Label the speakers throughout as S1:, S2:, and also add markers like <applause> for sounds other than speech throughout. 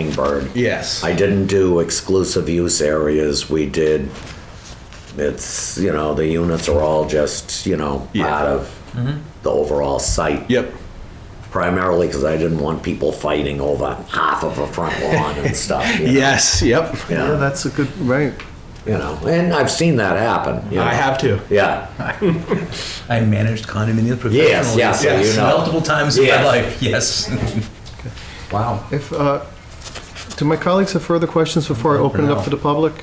S1: hummingbird.
S2: Yes.
S1: I didn't do exclusive use areas. We did, it's, you know, the units are all just, you know,
S2: Yeah. Mm-hmm.
S1: part of the overall site.
S2: Yep.
S1: Primarily because I didn't want people fighting over half of a front lawn and stuff.
S2: <laughs>
S1: you know?
S2: Yes. Yep.
S3: Yeah,
S1: Yeah,
S3: that's a good, right.
S1: you know, and I've seen that happen. you
S2: I
S1: know.
S2: have to.
S1: Yeah,
S4: I managed condominium professionally.
S1: yes, so you know.
S4: Multiple times in my
S1: Yes.
S4: life, yes. Wow.
S3: If, uh, do my colleagues have further questions before I open it up to the public?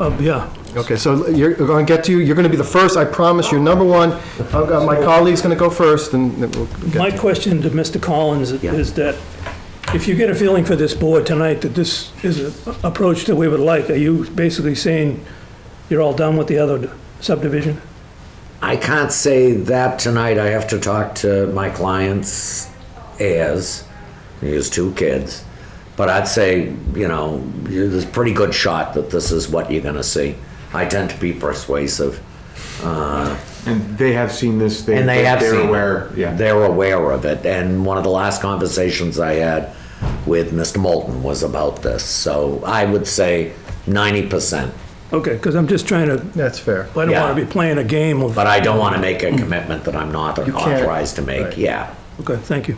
S5: Uh, Yeah,
S3: Okay, so you're going to get to, you. you're going to be the first, I promise, you're number one. I've got- My colleague's going to go first, and then we'll
S5: my
S3: get to
S5: question to Mr. Collins is that if you get a feeling for this board tonight that this is an approach that we would like, are you basically saying you're all done with the other subdivision?
S1: I can't say that tonight. I have to talk to my client's heirs. He has two kids. But I'd say, you know, you- there's a pretty good shot that this is what you're going to see. I tend to be persuasive.
S6: And they have seen this. They,
S1: and they have
S6: they're
S1: seen
S6: aware.
S1: it.
S6: Yeah.
S1: they're aware of it. And one of the last conversations I had with Mr. Moulton was about this. So I would say 90%.
S5: Okay, because I'm just trying to,
S3: That's fair.
S5: I don't
S1: Yeah.
S5: want to be playing a game of,
S1: But I don't want to make a commitment that I'm not
S3: can't.
S1: authorized to make.
S3: Right.
S1: Yeah.
S5: okay, thank you.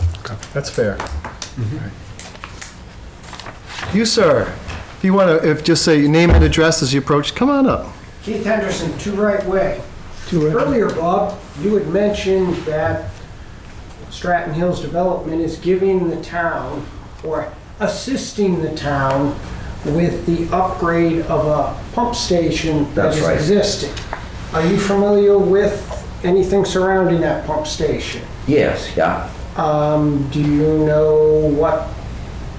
S3: That's fair.
S7: Mm-hmm.
S3: You, sir, if you want to, if, just say your name and address as you approach, come on up.
S8: Keith Henderson, Two Right Way.
S5: Two right-
S8: Earlier, Bob, you had mentioned that Stratton Hills Development is giving the town or assisting the town with the upgrade of a pump station that
S1: That's
S8: is
S1: right.
S8: existing. Are you familiar with anything surrounding that pump station?
S1: Yes, yeah.
S8: Um, Do you know what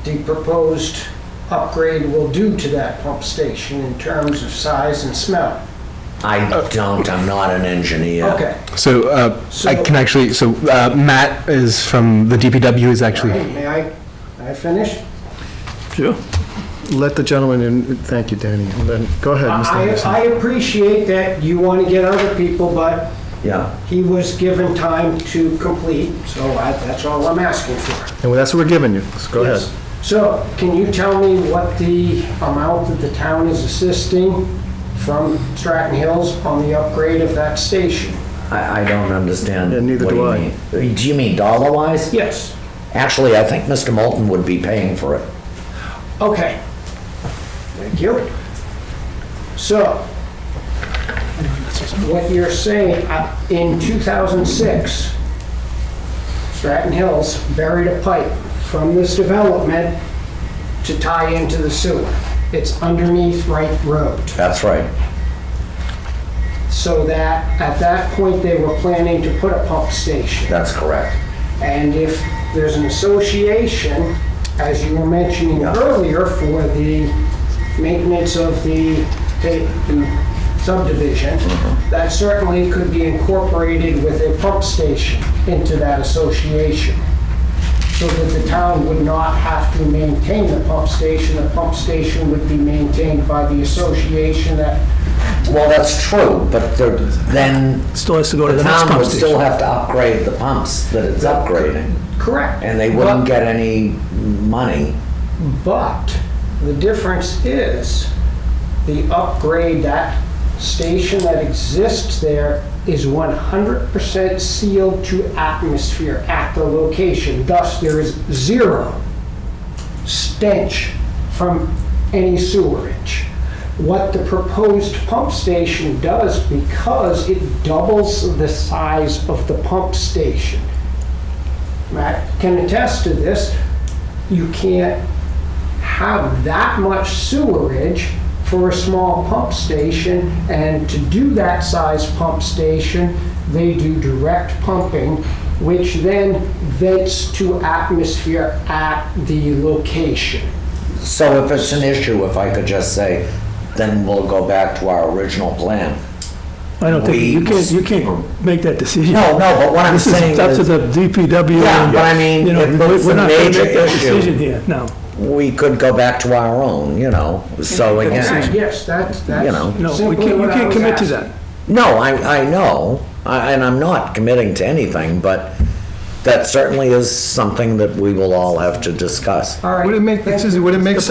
S8: the proposed upgrade will do to that pump station in terms of size and smell?
S5: Uh,
S1: I don't, I'm not an engineer.
S8: Okay.
S7: So, uh, I
S8: So-
S7: can actually, so, uh, Matt is from the DPW is actually,
S8: Hey, May I, may I finish?
S5: Sure.
S3: Let the gentleman in, thank you, Danny, and then, go ahead, Mr.
S8: I,
S3: Anderson.
S8: I appreciate that you want to get other people, but
S1: Yeah.
S8: he was given time to complete, so I, that's all I'm asking for.
S3: And that's what we're giving you, so go ahead.
S8: Yes. So, can you tell me what the amount that the town is assisting from Stratton Hills on the upgrade of that station?
S1: I, I don't understand.
S3: Yeah, neither
S1: what
S3: do I.
S1: you mean. Do you mean dollar wise?
S8: Yes.
S1: Actually, I think Mr. Moulton would be paying for it.
S8: Okay. Thank you. So, what you're saying, uh, in 2006, Stratton Hills buried a pipe from this development to tie into the sewer. It's underneath Wright Road.
S1: That's right.
S8: So that, at that point, they were planning to put a pump station.
S1: That's correct.
S8: And if there's an association, as you were mentioning earlier, for the maintenance of the the subdivision,
S1: Mm-hmm.
S8: that certainly could be incorporated with a pump station into that association. So that the town would not have to maintain the pump station. The pump station would be maintained by the association that
S1: Well, that's true, but there- then
S5: Still has to go to
S1: the
S5: the next
S1: town
S5: pump
S1: would still
S5: station.
S1: have to upgrade the pumps that it's upgrading.
S8: Correct.
S1: And they wouldn't get any money.
S8: But the difference is the upgrade, that station that exists there is 100% sealed to atmosphere at the location. Thus, there is zero stench from any sewerage. What the proposed pump station does, because it doubles the size of the pump station, Matt can attest to this, you can't have that much sewerage for a small pump station, and to do that size pump station, they do direct pumping, which then vents to atmosphere at the location.
S1: So if it's an issue, if I could just say, then we'll go back to our original plan.
S5: I don't think, you
S1: we-
S5: can't, you can't make that decision.
S1: No, no, but what I'm
S5: This
S1: saying
S5: is up to
S1: is,
S5: the DPW.
S1: Yeah,
S5: and,
S1: but I mean,
S5: you know,
S1: if it's
S5: we're-
S1: a major
S5: We're not going to make that
S1: issue-
S5: decision here, no.
S1: we could go back to our own, you know, so again.
S8: Yes, that's,
S1: You know.
S5: No,
S8: that's
S5: we
S8: simply
S5: can't, we
S8: what I
S5: can't
S8: was
S5: commit to
S8: asking.
S5: that.
S1: No, I, I know, I- and I'm not committing to anything, but
S9: that certainly is something that we will all have to discuss.
S1: All right.
S3: Would it make,
S1: Thank
S3: Suzie,
S1: you.
S3: would it make